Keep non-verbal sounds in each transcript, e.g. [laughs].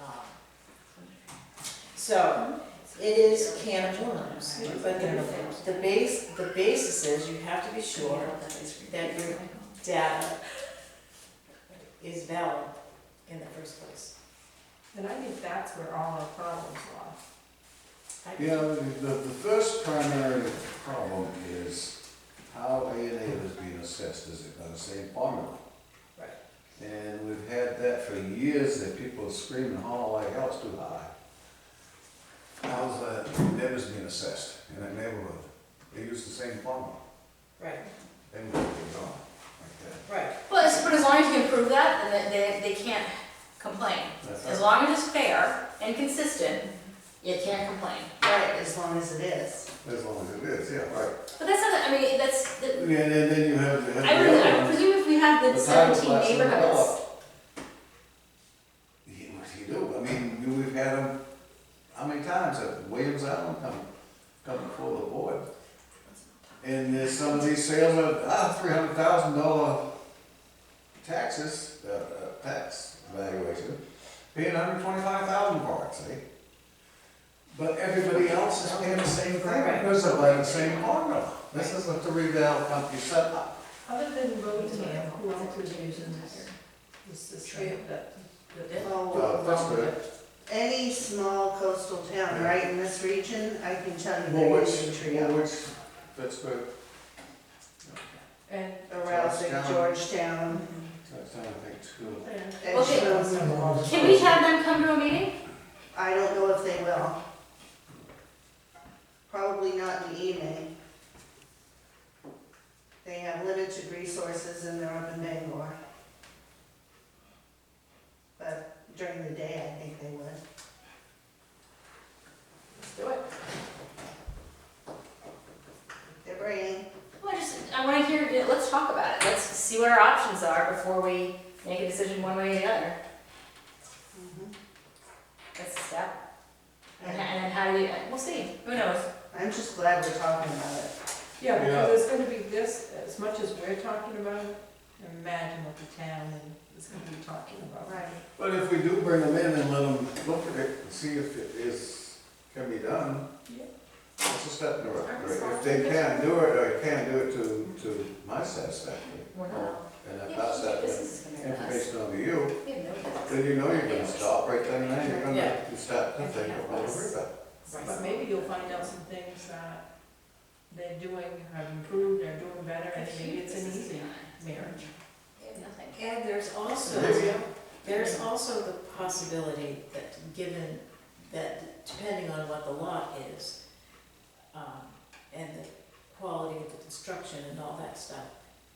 um, So, it is a can of worms, but the, the base, the basis is you have to be sure that your data is valid in the first place. And I think that's where all our problems lie. I- Yeah, the, the the first primary problem is how A and A is being assessed, is it by the same formula? Right. And we've had that for years, that people scream and holler like hell's too high. How's the neighbors being assessed in that neighborhood? They use the same formula, Right, they would be gone like that. right, Well, it's- but as long as you can prove that, then they, they can't complain. As That's right. long as it's fair and consistent, you can't complain. Right, as long as it is. As long as it is, yeah, right. But that's not, I mean, that's, the- And then then you have, you have I the would, other I one. would presume if we had the The title seventeen class and neighborhoods. co-op. You, what you do, I mean, you- we've had them, how many times have Williams Island come, come before the board? And there's some of these sales of, ah, three hundred thousand dollar taxes, uh, uh, tax valuation, paying hundred twenty-five thousand for it, see? But everybody else is paying the same thing, because they're buying the same formula. This is what the revale company set up. Other than Rodan, who else is using this, this system that? Uh, Well, that's good. any small coastal town, right, in this region, I can tell you Well, they're which, using well, Trio. which, that's good. And, Arousing Georgetown. Georgetown, That's, I think, two. and Edgewood. Can we have them come to a meeting? I don't know if they will. Probably not in evening. They have limited resources and they're up in Bangor. But during the day, I think they would. let's do it. They're bringing, Well, I just, I wanna hear, yeah, let's talk about it, let's see what our options are before we make a decision one way or the other. Mm-hmm. That's a step. And, Yeah. and then how do you, we'll see, who knows? I'm just glad we're talking about it. Yeah, Yeah. because it's gonna be this, as much as we're talking about it, imagine what the town is gonna be talking about. Right. But if we do bring them in and let them look at it and see if it is, can be done. Yeah. It's a step in the right I'm direction. If they can do it, or can do it to, to my satisfaction, We're not. and Yeah, if that's This Oh, that is gonna be us. information over you, We have no business. then you know you're gonna stop right then and there, you're Yeah. gonna, you start to think about it. Worry about it. But maybe you'll find out some things that they're doing, have improved, they're doing better, and maybe it's an easy marriage. We have nothing. And there's also, Yeah. there's also the possibility that given, that depending on what the lot is, um, and the quality of the construction and all that stuff,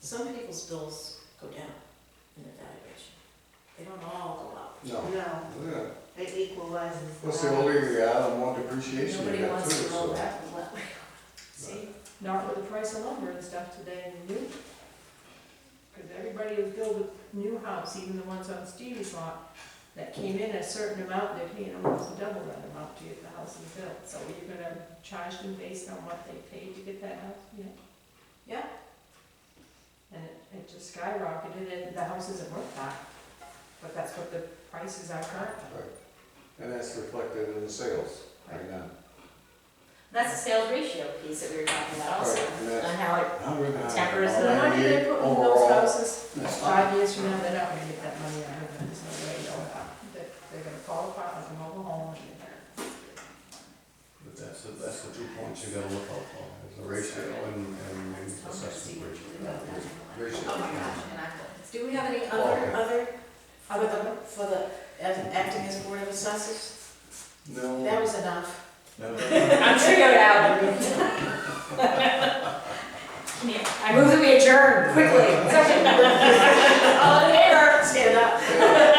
some people's bills go down in their valuation. They don't all go up. No, No, yeah, it equalizes. what's the only, yeah, I don't want depreciation, you Nobody got too, wants to so. roll that, well, See, not with the price of lumber and stuff today in the new. Because everybody who built a new house, even the ones on Stevie's lot, that came in a certain amount, they're paying almost double that amount to get the house is built. So are you gonna charge them based on what they paid to get that house? Yeah. Yeah. And it, it just skyrocketed and the house isn't worth that. But that's what the prices are currently. Right. And that's reflected in the sales right now. That's the sales ratio piece that we were talking about also, Right, and that's- on how it, Tempers So how do they put in those houses? Overall. Five years from now, they're not gonna get that money out of them, there's no way they'll have, they're, they're gonna fall apart like a mobile home. and they're- But that's, the- that's the two points you gotta look out for, is the ratio and, and the assessment ratio. oh my gosh, and I, Do we have any Oh, Okay. other, other, for the, for the act- acting as board of assessors? No. That was [laughs] enough. no. I'm trioed out. [laughs] Come here. [laughs] I move that we adjourn quickly. Second. All in favor? Stand up. Oh,